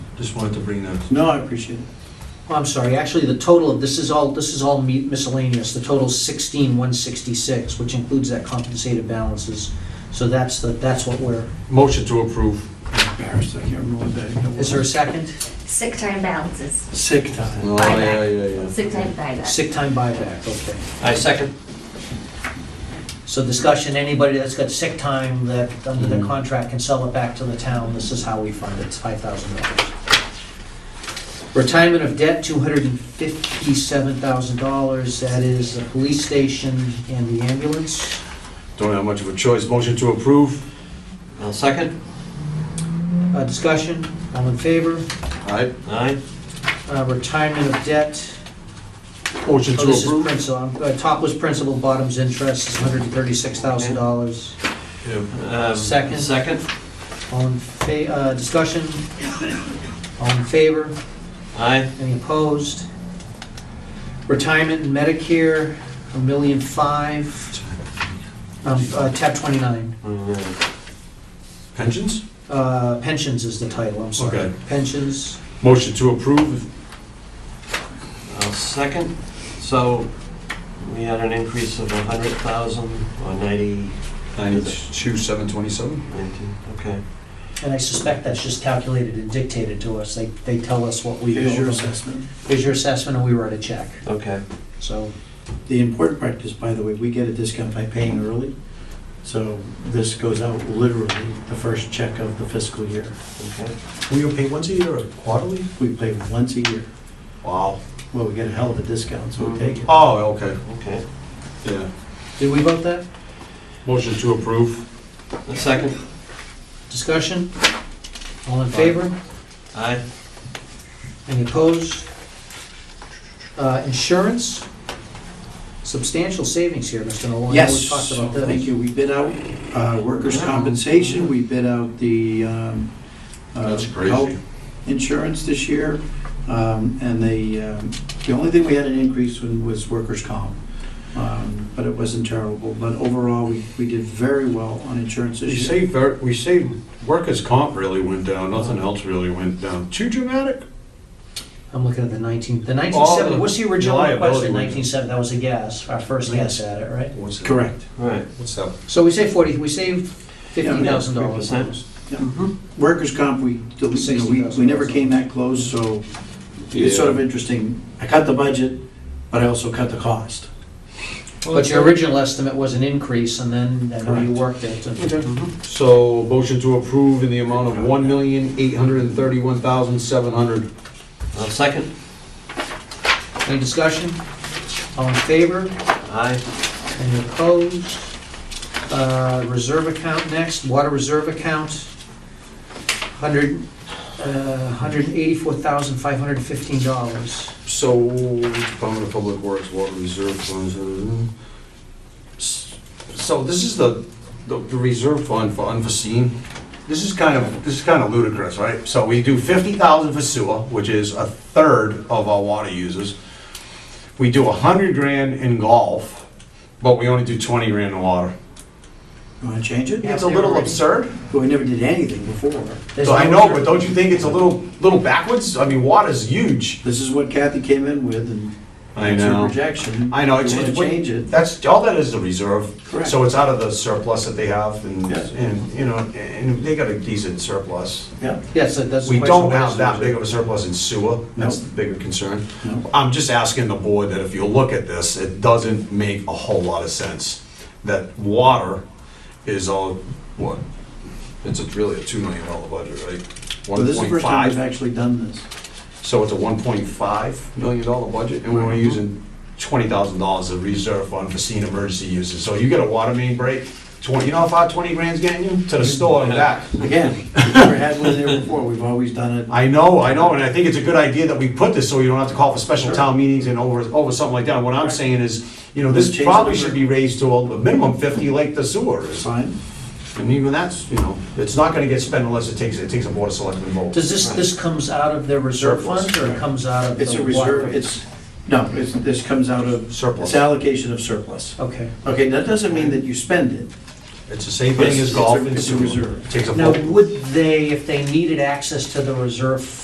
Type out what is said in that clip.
Just wanted to bring those. No, I appreciate it. Oh, I'm sorry, actually, the total of, this is all, this is all mi- miscellaneous, the total's sixteen, one sixty-six, which includes that compensated balances. So that's the, that's what we're, Motion to approve. I'm Embarrassed, I can't remember what day. it is there a was. second? Sick time balances, Sick time. Oh, yeah, yeah, yeah. sick time buyback. Sick time buyback, okay. I second. So discussion, anybody that's got sick time that, under the Mm-hmm. Mhm. contract, can sell it back to the town, this is how we fund it, it's five thousand dollars. Retirement of debt, two hundred and fifty-seven thousand dollars, that is the police station and the ambulance. Don't have much of a choice. Motion to approve. I'll second. Uh, discussion, all in favor? Aye. Aye. Uh, retirement of debt. Motion Oh, to this is approve. principal, I'm- uh, top was principal, bottom's interest is $136,000. Yeah. Um, Second. Second. All in fa, uh, discussion? All in favor? Aye. Any opposed? Retirement and Medicare, a million five. Um, uh, tab 29. Pensions? Uh, pensions is the title, I'm sorry. Okay. Pensions, Motion to approve. I'll second. So we had an increase of 100,000 or 90, Ninety-two, seven twenty-seven. 90, okay. and I suspect that's just calculated and dictated to us. They, they tell us what we. Here's your assessment. Here's your assessment, and we write a check, Okay. so. The important part is, by the way, we get a discount by paying early. So this goes out literally the first check of the fiscal year. Okay. We were paid once a year or quarterly? We pay once a year. Wow. Well, we get a hell of a discount, so we take it. Oh, okay, Okay. yeah. Did we vote that? Motion to approve. A second. Discussion? All in favor? Aye. Any opposed? Uh, Insurance? Substantial savings here, Mr. Nolan. Yes, We talked about thank this. you. We bid out uh, workers' compensation, we bid out the um, uh, That's crazy. health insurance this year, um, and the, um, the only thing we had an increase in was workers' comp, Um, but it wasn't terrible. But overall, we we did very well on insurance We this year. saved, ver- we saved, workers' comp really went down, nothing else really went down. Too dramatic? I'm looking at the 19, the All 1970, the what's the original request liability in we- 1970? That was a guess, our first guess at it, right? What's that? Correct. All right. What's that? So we saved 40, we saved Three $50,000. percent. Mm-hmm. Workers' comp, we, you know, we we never came that close, so it's sort of interesting. I cut the budget, but I also cut the cost. But your original estimate was an increase, and then, I know you Correct. worked it. and- Mm-hmm. So, motion to approve in the amount of one million, eight hundred and thirty-one thousand, seven hundred. I'll second. Any discussion? All in favor? Aye. Any opposed? Uh, Reserve account next, water reserve account, 100, uh, $184,515. So, Department of Public Works, Water Reserve Funds. uh, s- So this is the, the the reserve fund for unforeseen. This is kind of, this is kind of ludicrous, right? So we do fifty thousand for sewer, which is a third of our water users. We do a hundred grand in golf, but we only do twenty grand in water. You want to change it? It's a little absurd. But we never did anything before. There's So I no know, but don't you think it's a little, little backwards? I mean, water's huge. This is what Kathy came in with and it's her projection. I know, You it's, wanna it's, change it. that's, all that is the reserve. Correct. So it's out of the surplus that they have, and, Yes. and, you know, and they got a decent surplus. Yeah. Yes, that- that's. the We question. don't have that big of a surplus in sewer, that's No. the bigger concern. No. I'm just asking the board that if you look at this, it doesn't make a whole lot of sense. That water is all, what, it's a- really a two million dollar budget, right? Well, this is the first time 1.5. we've actually done this. So it's a one point five million dollar budget, and we're only Mm-hmm. using twenty thousand dollars of reserve for unforeseen emergency uses. So you get a water main break, twenty, you know how far twenty grand's getting you? Mm-hmm. To the store and back. Again, we've never had one there before. We've always done it. I know, I know, and I think it's a good idea that we put this, so you don't have to call for special town meetings and over, over something like that. What I'm saying is, you know, Change this the probably number. should be raised to a minimum fifty like the sewer It's is. fine. And even that's, you know, it's not gonna get spent unless it takes, it takes a board of selectmen vote. Does this, this comes out of their reserve Surplus, fund, or it right. comes out of the? It's a water? reserve, it's, no, it's, this comes out of. Surplus. It's allocation of surplus. Okay. Okay, that doesn't mean that you spend it. It's the same thing It's- as it's a- golf and it's a sewer. reserve. Takes a Now, vote. would they, if they needed access to the reserve